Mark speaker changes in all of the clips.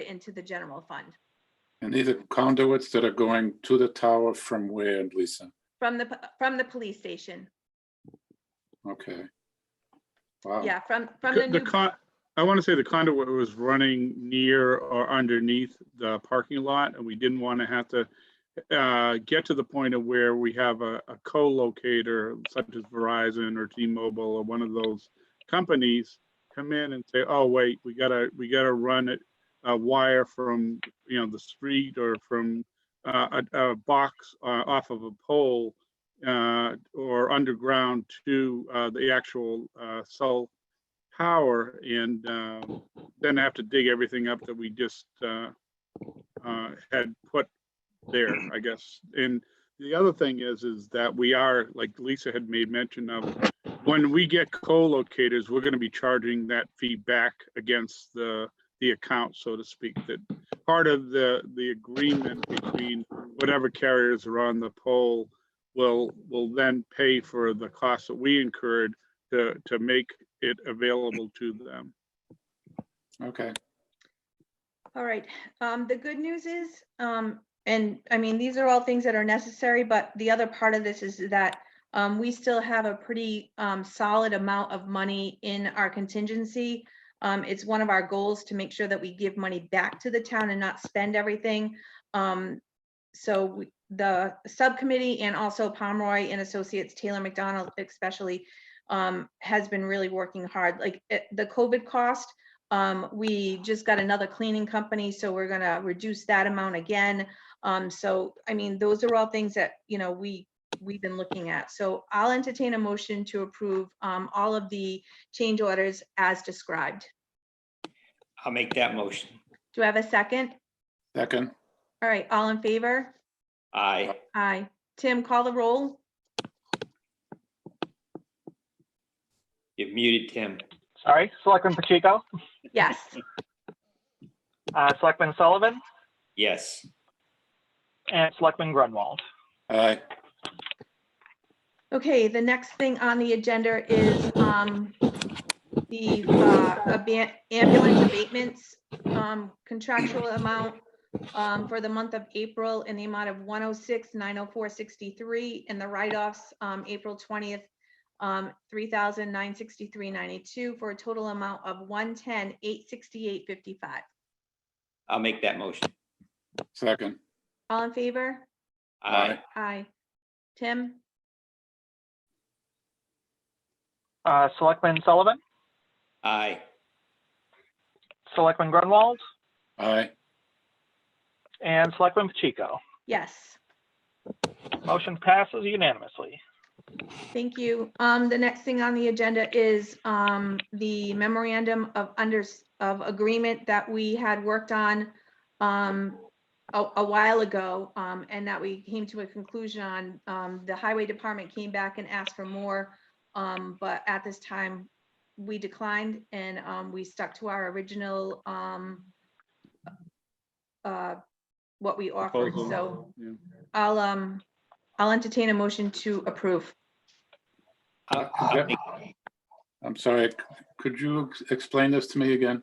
Speaker 1: into the general fund
Speaker 2: And these are conduits that are going to the tower from where, Lisa?
Speaker 1: from the, p- from the police station.
Speaker 2: Okay. Wow.
Speaker 1: Yeah, from, from the
Speaker 3: Co- The
Speaker 1: new,
Speaker 3: con, I want to say the conduit was running near or underneath the parking lot, and we didn't want to have to uh, get to the point of where we have a, a co-locator such as Verizon or T-Mobile or one of those companies come in and say, oh, wait, we gotta, we gotta run it, a wire from, you know, the street or from uh, a, a box uh, off of a pole uh, or underground to uh, the actual uh, cell power and um, then have to dig everything up that we just uh, uh, had put there, I guess. And the other thing is, is that we are, like Lisa had made mention of, when we get co-locators, we're going to be charging that fee back against the, the account, so to speak, that part of the, the agreement between whatever carriers are on the pole will, will then pay for the costs that we incurred to, to make it available to them.
Speaker 2: Okay.
Speaker 1: all right. Um, the good news is, um, and I mean, these are all things that are necessary, but the other part of this is that um, we still have a pretty um, solid amount of money in our contingency. Um, it's one of our goals to make sure that we give money back to the town and not spend everything. Um, so we- the subcommittee and also Pomeroy and Associates, Taylor McDonald especially, um, has been really working hard. Like eh, the COVID cost, um, we just got another cleaning company, so we're gonna reduce that amount again. Um, so, I mean, those are all things that, you know, we we've been looking at. So I'll entertain a motion to approve um, all of the change orders as described.
Speaker 4: I'll make that motion.
Speaker 1: Do I have a second?
Speaker 2: Second,
Speaker 1: All right, all in favor?
Speaker 4: Aye.
Speaker 1: Aye. Tim, call the roll.
Speaker 4: You've muted, Tim.
Speaker 5: Sorry, Selectman Pacheco,
Speaker 1: Yes.
Speaker 5: uh, Selectman Sullivan,
Speaker 4: Yes.
Speaker 5: and Selectman Grunwald.
Speaker 2: aye,
Speaker 1: Okay, the next thing on the agenda is um, the uh, aban- ambulance abatements um, contractual amount um, for the month of April in the amount of 106,904.63 and the write-offs, um, April 20th, um, 3,963.92 for a total amount of 110,868.55.
Speaker 4: I'll make that motion.
Speaker 2: second,
Speaker 1: All in favor?
Speaker 4: Aye.
Speaker 1: Aye. Tim?
Speaker 5: Uh, Selectman Sullivan,
Speaker 4: Aye.
Speaker 5: Selectman Grunwald,
Speaker 2: aye,
Speaker 5: and Selectman Pacheco.
Speaker 1: Yes.
Speaker 5: Motion passes unanimously.
Speaker 1: Thank you. Um, the next thing on the agenda is, um, the memorandum of under, of agreement that we had worked on, um, a, a while ago, um, and that we came to a conclusion on, um, the highway department came back and asked for more. Um, but at this time, we declined and, um, we stuck to our original, um, uh, what we offered,
Speaker 3: Proposal.
Speaker 1: so
Speaker 3: Yeah.
Speaker 1: I'll, um, I'll entertain a motion to approve.
Speaker 4: I'll- I'll make-
Speaker 2: I'm sorry, c- could you ex- explain this to me again?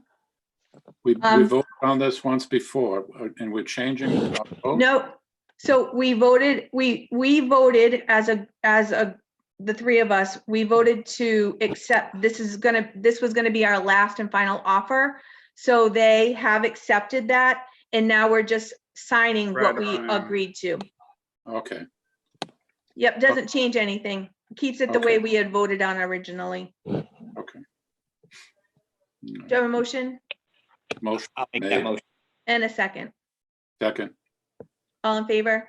Speaker 2: We, we
Speaker 1: Um,
Speaker 2: voted on this once before, uh, and we're changing. our vote?
Speaker 1: No, so we voted, we, we voted as a, as a, the three of us, we voted to accept, this is gonna, this was gonna be our last and final offer. So they have accepted that, and now we're just signing what we
Speaker 3: Ratifying.
Speaker 1: agreed to.
Speaker 2: Okay,
Speaker 1: Yep, doesn't change anything, keeps it the way
Speaker 2: Okay.
Speaker 1: we had voted on originally.
Speaker 2: okay.
Speaker 1: Do you have a motion
Speaker 2: Motion,
Speaker 4: I'll make that motion.
Speaker 1: and a second?
Speaker 2: second,
Speaker 1: All in favor?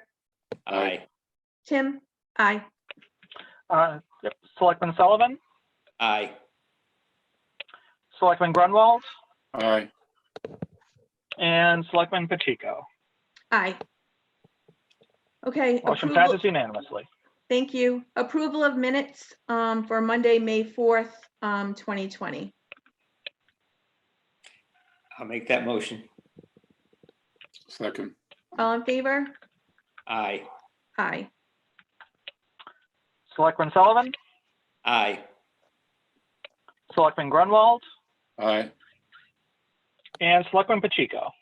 Speaker 4: Aye.
Speaker 1: Tim? Aye.
Speaker 5: Uh, yep, Selectman Sullivan,
Speaker 4: Aye.
Speaker 5: Selectman Grunwald,
Speaker 2: aye,
Speaker 5: and Selectman Pacheco.
Speaker 1: Aye. Okay.
Speaker 5: Motion
Speaker 1: approval-
Speaker 5: passes unanimously.
Speaker 1: Thank you. Approval of minutes um, for Monday, May 4th, um, 2020.
Speaker 4: I'll make that motion.
Speaker 2: second,
Speaker 1: All in favor?
Speaker 4: Aye.
Speaker 1: Aye.
Speaker 5: Selectman Sullivan,
Speaker 4: Aye.
Speaker 5: Selectman Grunwald,
Speaker 2: aye,
Speaker 5: and Selectman Pacheco.